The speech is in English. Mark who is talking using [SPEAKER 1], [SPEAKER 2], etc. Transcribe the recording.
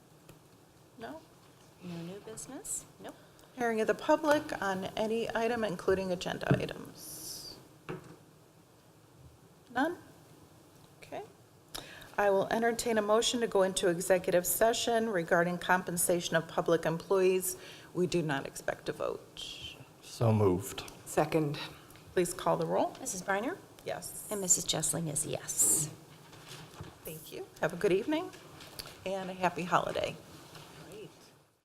[SPEAKER 1] No? No new business? Nope. Hearing of the public on any item, including agenda items? None? Okay. I will entertain a motion to go into executive session regarding compensation of public employees. We do not expect a vote.
[SPEAKER 2] So moved.
[SPEAKER 3] Second.
[SPEAKER 1] Please call the roll.
[SPEAKER 4] Mrs. Briner?
[SPEAKER 1] Yes.
[SPEAKER 4] And Mrs. Jessling is yes.
[SPEAKER 1] Thank you. Have a good evening and a happy holiday.